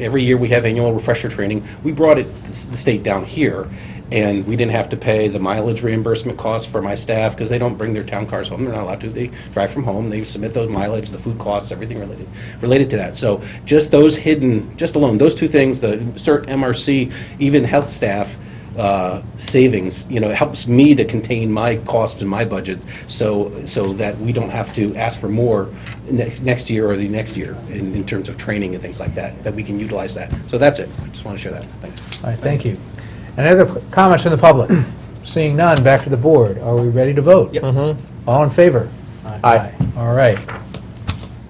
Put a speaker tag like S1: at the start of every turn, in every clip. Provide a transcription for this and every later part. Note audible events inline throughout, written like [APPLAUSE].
S1: Every year we have annual refresher training. We brought it, the state down here, and we didn't have to pay the mileage reimbursement costs for my staff, because they don't bring their town cars home, they're not allowed to, they drive from home, they submit those mileage, the food costs, everything related, related to that. So just those hidden, just alone, those two things, the CERT, MRC, even health staff, uh, savings, you know, it helps me to contain my costs and my budget, so, so that we don't have to ask for more ne- next year or the next year in, in terms of training and things like that, that we can utilize that. So that's it, I just want to share that, thanks.
S2: All right, thank you. Any other p- comments from the public? [CLEARS THROAT] Seeing none, back to the board. Are we ready to vote?
S1: Yep.
S2: Mm-hmm. All in favor? Aye. All right.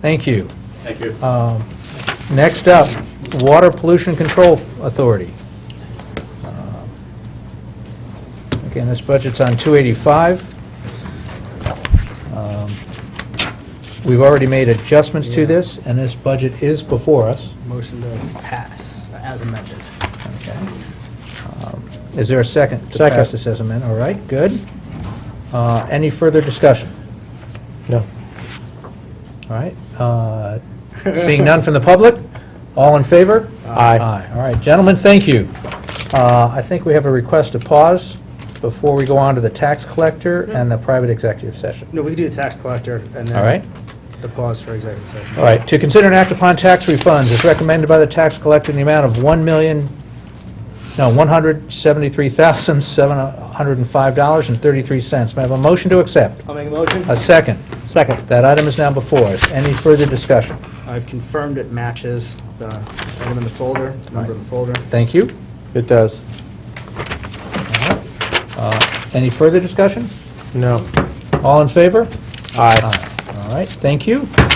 S2: Thank you. Um,
S3: Thank you.
S2: Next up, Water Pollution Control Authority. Uh, Again, this budget's on 285. Um, We've already made adjustments to
S4: Yeah.
S2: this, and this budget is before us.
S4: Motion to pass as amended.
S2: Okay. Um, Is there a second? To pass this as amended, all right, good. Uh, Any further discussion? No. All right, uh, seeing none from the public, all in favor?
S4: Aye.
S2: Aye, all right, gentlemen, thank you. Uh, I think we have a request to pause before we go on to the tax collector and the private executive session.
S4: No, we can do the tax collector and then.
S2: All right.
S4: The pause for executive session.
S2: All right, to consider and act upon tax refunds as recommended by the tax collector in the amount of 1 million, no, $173,705.33. May I have a motion to accept?
S4: I'll make a motion.
S2: A second. Second. That item is now before us. Any further discussion?
S4: I've confirmed it matches the item in the folder, number in the folder.
S2: Thank you.
S5: It does.
S2: Uh, Any further discussion?
S5: No.
S2: All in favor?
S5: Aye.
S2: All right, thank you.